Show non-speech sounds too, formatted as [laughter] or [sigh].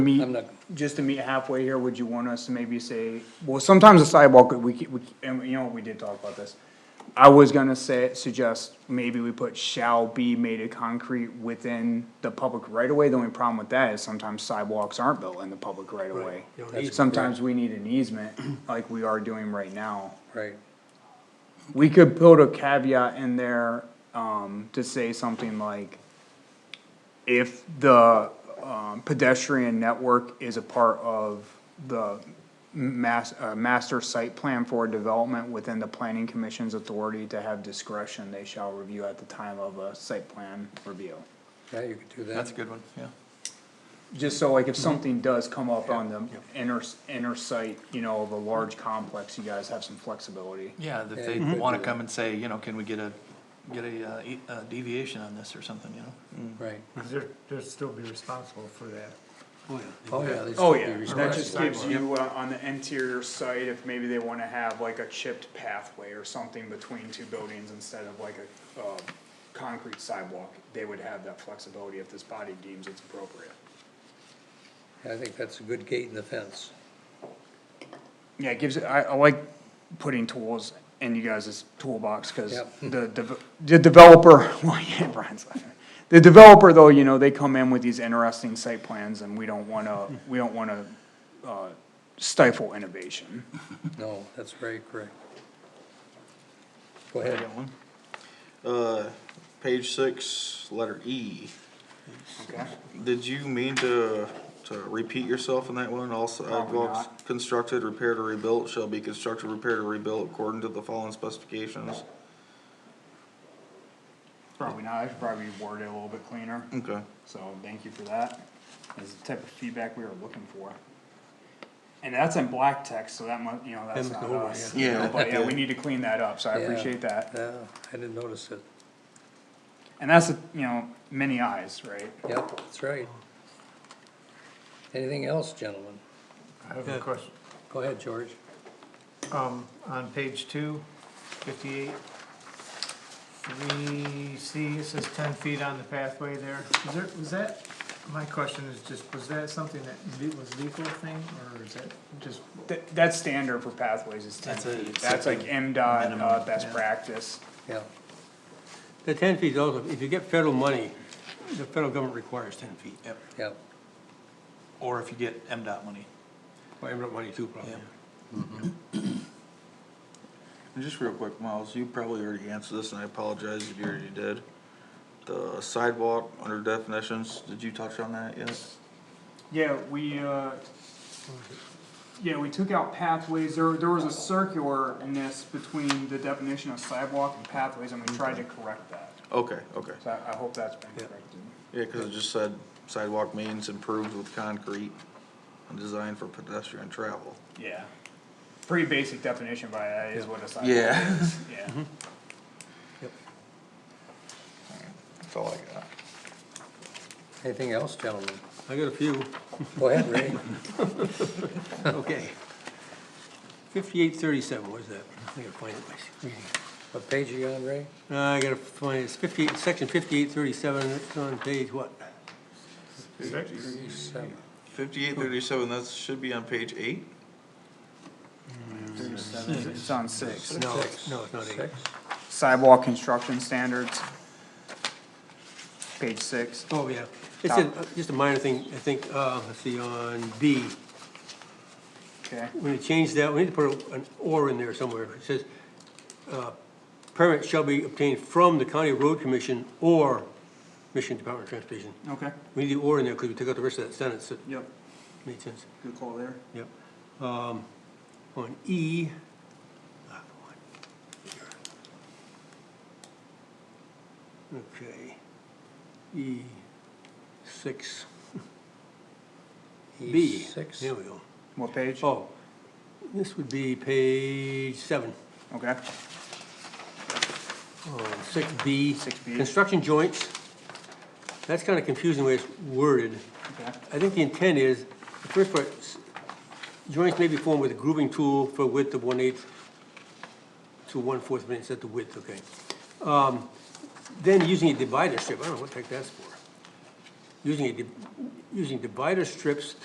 meet, I'm not- just to meet halfway here, would you want us to maybe say, well, sometimes the sidewalk, we, c- we, and you know, we did talk about this. I was gonna say, suggest maybe we put shall be made of concrete within the public right of way. The only problem with that is sometimes sidewalks aren't built in the public right of way. You don't need- Sometimes we need an easement, like we are doing right now. Right. We could put a caveat in there, um, to say something like, if the, um, pedestrian network is a part of the mas- uh, master site plan for development within the planning commission's authority to have discretion, they shall review at the time of a site plan review. Yeah, you could do that. That's a good one, yeah. Just so like if something does come up on the inner, inner site, you know, of a large complex, you guys have some flexibility. Yeah, that Yeah, they you could wanna do come and say, you know, can we get a, get a, uh, e- a deviation on this or something, you know? Right. They're, they'll still be responsible for that. Oh, yeah. they'd Oh, still be yeah, that responsible. just gives you, uh, on the interior site, if maybe they wanna have like a chipped pathway or something between two buildings instead of like a, uh, concrete sidewalk, they would have that flexibility if this body deems it's appropriate. I think that's a good gate in the fence. Yeah, it gives, I, I like putting tools in you guys' toolbox, cause Yep. [laughs] the, dev- the developer, [laughs] well, yeah, Brian's laughing. The developer, though, you know, they come in with these interesting site plans and we don't wanna, we don't wanna, uh, stifle innovation. No, that's very correct. Go ahead. Uh, page six, letter E. Okay. Did you mean to, to repeat yourself in that one? All sidewalks not. constructed, repaired, or rebuilt shall be constructed, repaired, or rebuilt according to the following specifications. Probably not, I should probably word it a little bit cleaner, Okay. so thank you for that. That's the type of feedback we were looking for. And that's in black text, so that must, you know, that's Him not over, us. yeah. Yeah. But yeah, we need to clean that up, so I Yeah. appreciate that. Yeah, Ah, I didn't notice it. And that's, a- you know, many eyes, right? Yep, that's right. Anything else, gentlemen? I have a question. Go ahead, George. Um, on page two, fifty-eight, three C, it says ten feet on the pathway there. Is there, was that, my question is just, was that something that le- was legal thing, or is that just? That, that's standard for pathways is ten That's a- feet. That's like MDOT, uh, best practice. Yeah, The ten feet is also, if you get federal money, the federal government requires ten feet. Yep, yep, or if you get MDOT money, Well, every money too, probably. Yeah. And just real quick, Miles, you probably already answered this, and I apologize if you already did. The sidewalk under definitions, did you touch on that yet? Yeah, we, uh, yeah, we took out pathways, there, there was a circularness between the definition of sidewalk and pathways, and we tried to correct that. Okay, okay. So I, I hope that's been corrected. Yeah, cause it just said sidewalk means improved with concrete and designed for pedestrian travel. Yeah. Pretty basic definition, but that is what a sidewalk Yeah. is, yeah. That's all I got. anything else, gentlemen? I got a few. Go ahead, Ray. Okay. Fifty-eight thirty-seven, what is that? I gotta find it, my reading. What page are you on, Ray? Uh, I gotta find, it's fifty-eight, section fifty-eight thirty-seven, it's on page what? Seven. Fifty-eight thirty-seven, that should be on page eight? It's on six. No, Six. no, it's not eight. Six? Sidewalk construction standards. Page six. Oh, yeah. It's a, just a minor thing, I think, uh, let's see, on B. Okay, When you change that, we need to put an or in there somewhere. It says, uh, permit shall be obtained from the county road commission or Michigan Department of Transportation. okay, We need the or in there because we took out the rest of that sentence. It yep, made sense. good call there. Yep. Um, on E. ah, come on. Okay. E six, B. E6. There we go. What page? Oh, this would be page seven, Okay, six B. 6B. Construction joints. That's kind of confusing the way it's worded. okay. I think the intent is, the first part, s- joints may be formed with a grooving tool for width of one eighth to one fourth of an inch, that's the width, okay. Um, Then using a divider strip, I don't know what the heck that's for. Using a, di- using divider strips